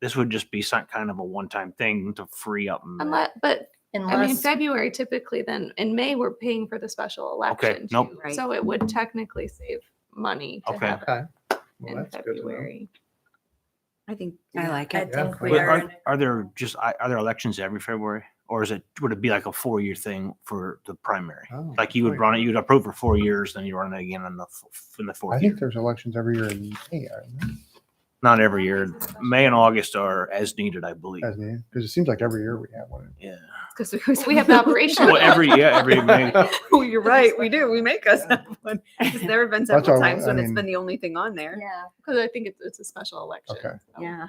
This would just be some kind of a one-time thing to free up. May. Unless, but I mean, Unless, February typically then, in May, we're paying for the special election. Okay, nope. too. Right. So it would technically save money to Okay. have it Okay. Well, in Oh, that's good to know. February. I think, I like it. I think But we are, Are, are there just, are are there elections every February? Or is it, would it be like a four-year thing for the primary? Oh, Like you would right. run it, you'd approve for four years, then you run it again in the, f- in the I fourth think year. there's elections every year in May, aren't there? Not every year. May and August are as needed, I believe. As in, because it seems like every year we have one. Yeah. Because we have the operation. Well, every, yeah, every May. Oh, you're right. We do. We make us have one. There's never been That's several all- times I when it's mean- been the only thing on there. yeah, Because I think it's, it's a special election. Okay. so. yeah.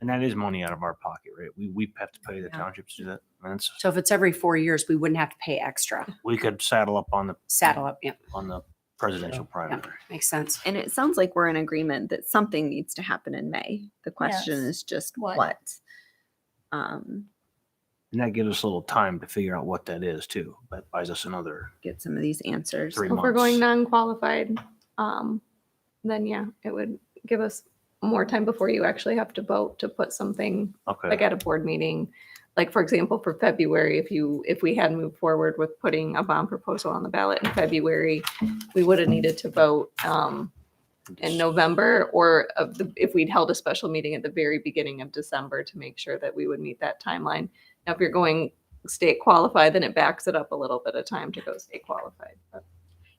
And that is money out of our pocket, right? We, we have to pay the townships to do that. And it's, So if it's every four years, we wouldn't have to pay extra. we could saddle up on the, Saddle up, yeah, on the presidential primary. makes sense. And it sounds like we're in agreement that something needs to happen in May. The question Yes. is just What? what. Um, And that gives us a little time to figure out what that is too. That buys us another get some of these answers. three If months. we're going non-qualified, um, then yeah, it would give us more time before you actually have to vote to put something Okay. like at a board meeting. Like, for example, for February, if you, if we had moved forward with putting a bond proposal on the ballot in February, we would have needed to vote um, in November or of the- if we'd held a special meeting at the very beginning of December to make sure that we would meet that timeline. Now, if you're going state qualified, then it backs it up a little bit of time to go state qualified.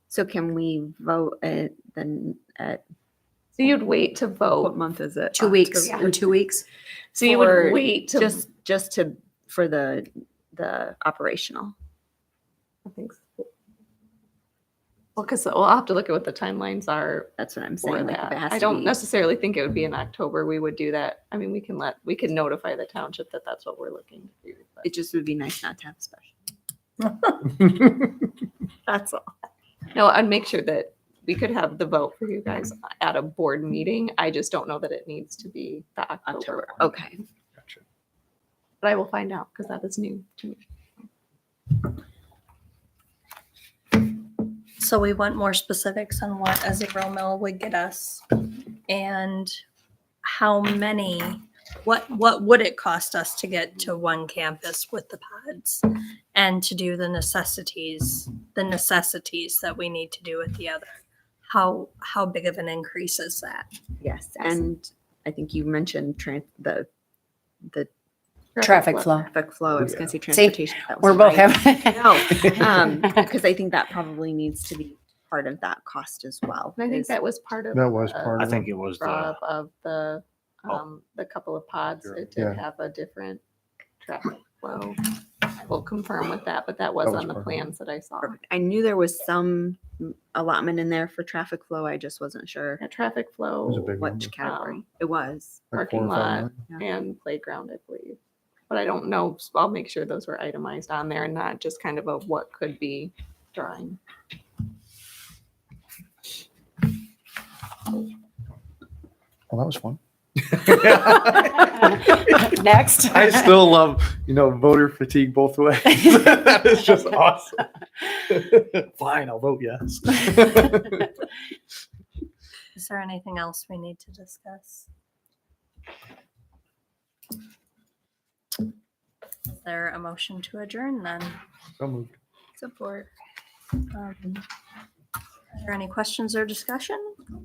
So can we vote at the at So you'd wait to what vote. month is it? Two weeks, October. in two weeks, Oh, So you would For wait to. Just just to for the the operational. I think so. Well, because we'll have to look at what the timelines are That's what I'm for saying. Like if that. it has I to don't be- necessarily think it would be in October. We would do that. I mean, we can let, we can notify the township that that's what we're looking to do. but- It just would be nice not to have a special. That's all. No, I'd make sure that we could have the vote for you guys at a board meeting. I just don't know that it needs to be the October. October. one. Okay. Gotcha. But I will find out because that is new to me. So we want more specifics on what a zero mill would get us and how many, what, what would it cost us to get to one campus with the pods? And to do the necessities, the necessities that we need to do with the other? How, how big of an increase is that? Yes, and I think you mentioned tran the the traffic flow. traffic flow. I was going to say See, transportation. but that We're both wasn't right. having, Um, No, um, because I think that probably needs to be part of that cost as well. And I think is- that was part of. That was uh, the part I of it. think it was draw the, up Of the, Oh. um, the couple of pods. Sure. It Yeah. did have a different traffic flow. I will confirm with that, but that was That was on the part of it. plans that I saw. Perfect. I knew there was some mm, allotment in there for traffic flow. I just wasn't sure a traffic was a flow big one. which category Um, it was. like four parking or lot. five million. and playground, I believe. But I don't know, so I'll make sure those were itemized on there and not just kind of a what could be drawing. Well, Oh, that was fun. next. I still love, you know, voter fatigue both ways. that is just awesome. Fine, I'll vote yes. Is there anything else we need to discuss? Is there a motion to adjourn then? So moved. Support. Are Um, there any questions or discussion?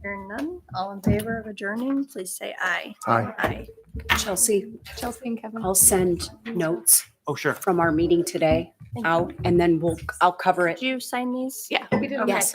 Hearing none, all in favor of adjourning, please say aye. Aye. Aye. Chelsea, Chelsea and Kevin. I'll send notes oh, sure. from our meeting today out, and then we'll, I'll cover it Did you sign these? Yeah, we did. Okay. Yes.